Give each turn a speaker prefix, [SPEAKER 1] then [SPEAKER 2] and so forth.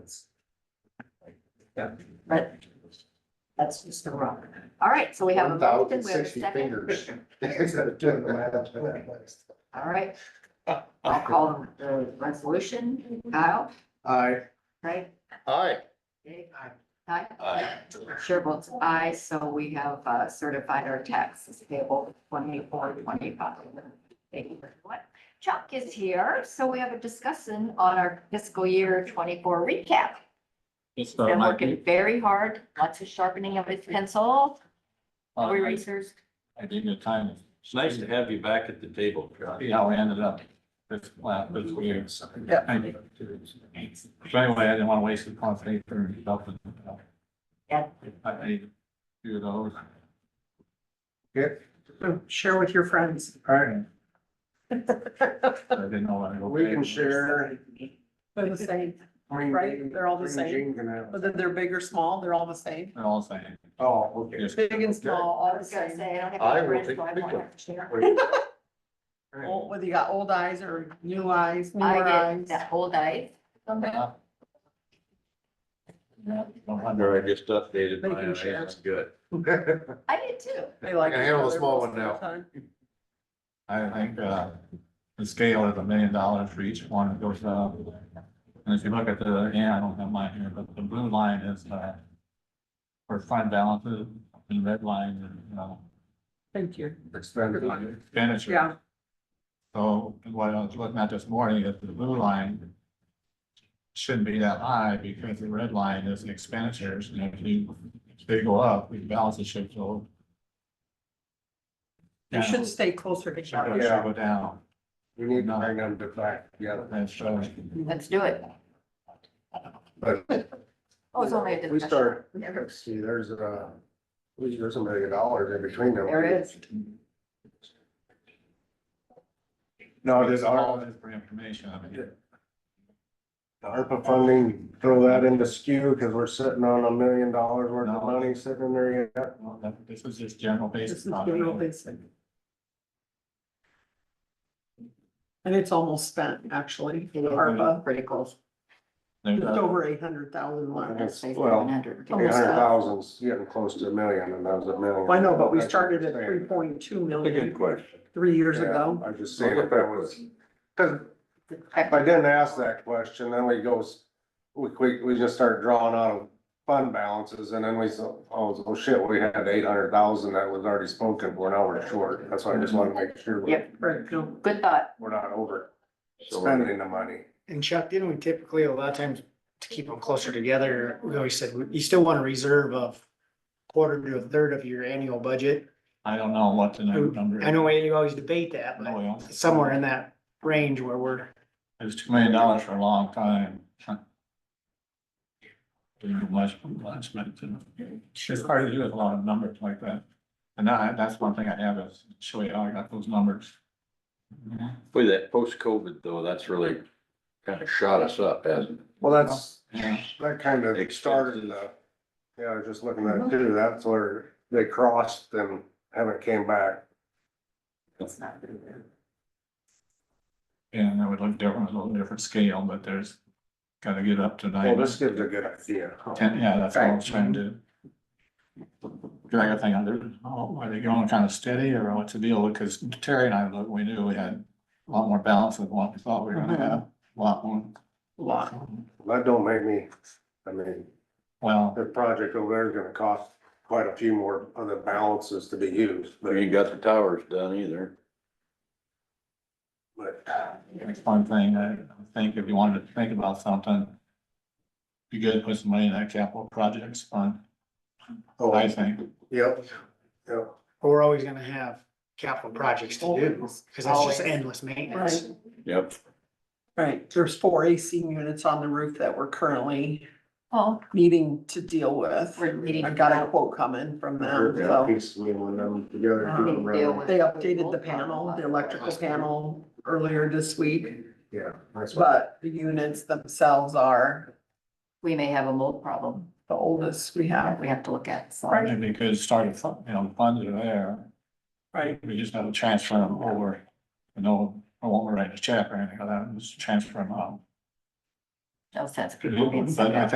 [SPEAKER 1] But that's just the rock. All right, so we have a motion, we have
[SPEAKER 2] 1,060
[SPEAKER 1] a
[SPEAKER 2] fingers.
[SPEAKER 1] second.
[SPEAKER 2] Doing the math.
[SPEAKER 1] All right. I'll call the resolution. Kyle,
[SPEAKER 2] Aye.
[SPEAKER 1] right?
[SPEAKER 2] Aye.
[SPEAKER 1] Dave? Aye. Chair votes aye, so we have uh, certified our taxes payable twenty-four, twenty-five. Thank you very much. Chuck is here, so we have a discussion on our fiscal year twenty-four recap.
[SPEAKER 3] It's
[SPEAKER 1] Been
[SPEAKER 3] my,
[SPEAKER 1] working very hard, lots of sharpening of his pencil, erasers.
[SPEAKER 3] I think the time, it's nice to have you back at the table, Charlie, how we ended up. This, last this year.
[SPEAKER 2] Yeah.
[SPEAKER 3] Thank you. So anyway, I didn't want to waste the conversation for yourself.
[SPEAKER 1] Yeah.
[SPEAKER 3] I, I, do those.
[SPEAKER 4] Share with your friends.
[SPEAKER 3] All right. I didn't know. what I-
[SPEAKER 2] We can share.
[SPEAKER 4] They're the same, Right, they're all the same. whether they're big or small, they're all the same.
[SPEAKER 3] They're all saying.
[SPEAKER 2] Oh, okay.
[SPEAKER 4] Big and small, all
[SPEAKER 1] I
[SPEAKER 4] the
[SPEAKER 1] was gonna
[SPEAKER 4] same.
[SPEAKER 1] say, I don't have.
[SPEAKER 2] I
[SPEAKER 1] any
[SPEAKER 2] will
[SPEAKER 1] friends,
[SPEAKER 2] take
[SPEAKER 1] so I
[SPEAKER 2] the big
[SPEAKER 1] won't
[SPEAKER 2] one.
[SPEAKER 1] have to share.
[SPEAKER 2] Wait.
[SPEAKER 4] Old- Whether you got old eyes or new eyes, newer
[SPEAKER 1] I get
[SPEAKER 4] eyes.
[SPEAKER 1] that whole diet.
[SPEAKER 3] Yeah. Don't wonder.
[SPEAKER 5] Or I just updated
[SPEAKER 4] They
[SPEAKER 5] mine,
[SPEAKER 4] can
[SPEAKER 5] and
[SPEAKER 4] share.
[SPEAKER 5] that's good.
[SPEAKER 1] I did too.
[SPEAKER 4] They like.
[SPEAKER 2] I can handle
[SPEAKER 4] each
[SPEAKER 2] a small
[SPEAKER 4] other
[SPEAKER 2] one now.
[SPEAKER 4] most of
[SPEAKER 3] I think, uh, the scale is a million dollars for each one that goes up. And if you look at the, yeah, I don't have mine here, but the blue line is, uh, for fund balances, and red line, is, you know,
[SPEAKER 4] the time. Thank you.
[SPEAKER 3] expended on expenditure.
[SPEAKER 4] Yeah,
[SPEAKER 3] So what I was looking at this morning is the blue line shouldn't be that high because the red line is expenditures, and if you, if they go up, the balances should go.
[SPEAKER 4] they
[SPEAKER 3] down.
[SPEAKER 4] should stay closer
[SPEAKER 3] Should
[SPEAKER 4] together.
[SPEAKER 3] go- should go down,
[SPEAKER 2] We need to hang on to back together.
[SPEAKER 3] and so.
[SPEAKER 1] Let's do it.
[SPEAKER 2] But
[SPEAKER 1] Oh, it's only a discussion.
[SPEAKER 2] We start,
[SPEAKER 1] We never-
[SPEAKER 2] see, there's a, there's a million dollars in between them.
[SPEAKER 1] There is.
[SPEAKER 2] No, Oh,
[SPEAKER 3] It's
[SPEAKER 2] does
[SPEAKER 3] all
[SPEAKER 2] our,
[SPEAKER 3] this for information, I mean.
[SPEAKER 2] the ARPA funding, throw that into skew because we're sitting on a million dollars worth of
[SPEAKER 3] No.
[SPEAKER 2] money sitting there yet.
[SPEAKER 3] well, that- This is just general
[SPEAKER 4] This is
[SPEAKER 3] basis.
[SPEAKER 4] general basic. And it's almost spent, actually,
[SPEAKER 1] It is
[SPEAKER 4] ARPA,
[SPEAKER 1] critical.
[SPEAKER 4] just over eight hundred thousand left.
[SPEAKER 2] That's- well, Eight
[SPEAKER 4] Almost
[SPEAKER 2] hundred
[SPEAKER 4] that.
[SPEAKER 2] thousands, getting close to a million and that was a million.
[SPEAKER 4] I know, but we
[SPEAKER 2] That's
[SPEAKER 4] started at
[SPEAKER 2] what I'm
[SPEAKER 4] three
[SPEAKER 2] saying.
[SPEAKER 4] point two
[SPEAKER 5] That's a good
[SPEAKER 4] million
[SPEAKER 5] question.
[SPEAKER 4] three years
[SPEAKER 2] Yeah,
[SPEAKER 4] ago.
[SPEAKER 2] I just saying if that was, because if I
[SPEAKER 1] But
[SPEAKER 2] didn't ask that question, then we goes, we, we, we just start drawing out of fund balances and then we, so- oh, oh shit, we had eight hundred thousand that was already spoken for, now we're short. That's why I just wanna make sure we're,
[SPEAKER 1] Yep.
[SPEAKER 4] Right, no,
[SPEAKER 1] Good thought.
[SPEAKER 2] we're not over
[SPEAKER 5] So we're-
[SPEAKER 2] spending the money.
[SPEAKER 6] And Chuck, didn't we typically, a lot of times, to keep them closer together, we always said, you still want to reserve a quarter to a third of your annual budget.
[SPEAKER 3] I don't know what the
[SPEAKER 6] Who-
[SPEAKER 3] number. is.
[SPEAKER 6] I know you always debate that,
[SPEAKER 3] No,
[SPEAKER 6] but
[SPEAKER 3] we don't.
[SPEAKER 6] somewhere in that range where we're,
[SPEAKER 3] It was two million dollars for a long time. Didn't do much, much, but uh, it's just hard to do with a lot of numbers like that. And that, that's one thing I have is show you how I got those numbers.
[SPEAKER 2] Mm-hmm.
[SPEAKER 5] Boy, that post-COVID though, that's really kind of shot us up, hasn't it?
[SPEAKER 2] Well, that's,
[SPEAKER 3] Yeah.
[SPEAKER 2] that kind of started the, yeah, I was just looking at it too, that's where they crossed and haven't came back.
[SPEAKER 1] It's not good.
[SPEAKER 3] And that would look different, a little different scale, but there's gotta get up to
[SPEAKER 2] Well,
[SPEAKER 3] nine,
[SPEAKER 2] this gives a good idea.
[SPEAKER 3] ten, yeah, that's what I was trying to. do. Cause I got thinking, they're- oh, are they going kind of steady or what's the deal? Because Terry and I, look, we knew we had a lot more balance than what we thought we were gonna have, a lot more. um,
[SPEAKER 4] a lot.
[SPEAKER 2] That don't make me, I mean.
[SPEAKER 3] Well,
[SPEAKER 2] The project over there is gonna cost quite a few more of the balances to be used,
[SPEAKER 5] We
[SPEAKER 2] but,
[SPEAKER 5] ain't got the towers done either.
[SPEAKER 2] but
[SPEAKER 3] it's one thing, I think if you wanted to think about something, you could put some money in that capital projects fund,
[SPEAKER 2] oh,
[SPEAKER 3] I
[SPEAKER 2] yep,
[SPEAKER 3] think.
[SPEAKER 2] yep. Well,
[SPEAKER 6] we're always gonna have capital projects to do. Cause that's just endless maintenance.
[SPEAKER 4] Right,
[SPEAKER 5] Yep.
[SPEAKER 4] right. There's four AC units on the roof that we're currently
[SPEAKER 1] Oh,
[SPEAKER 4] needing to deal with.
[SPEAKER 1] we're needing.
[SPEAKER 4] I've got a quote coming from them,
[SPEAKER 2] yeah,
[SPEAKER 4] so.
[SPEAKER 2] piece me one of them together, do them right.
[SPEAKER 4] They updated the panel, the electrical panel earlier this week,
[SPEAKER 2] Yeah, that's what,
[SPEAKER 4] but the units themselves are
[SPEAKER 1] We may have a mold problem
[SPEAKER 4] the oldest we
[SPEAKER 1] that
[SPEAKER 4] have.
[SPEAKER 1] we have to look at, so.
[SPEAKER 3] Probably because could start a fund, you know, funds are there,
[SPEAKER 4] Right.
[SPEAKER 3] we just have to transfer them over. You know, I won't write a check or anything like that, just transfer them out.
[SPEAKER 1] No sense. uh, people being
[SPEAKER 3] But I
[SPEAKER 1] sent out.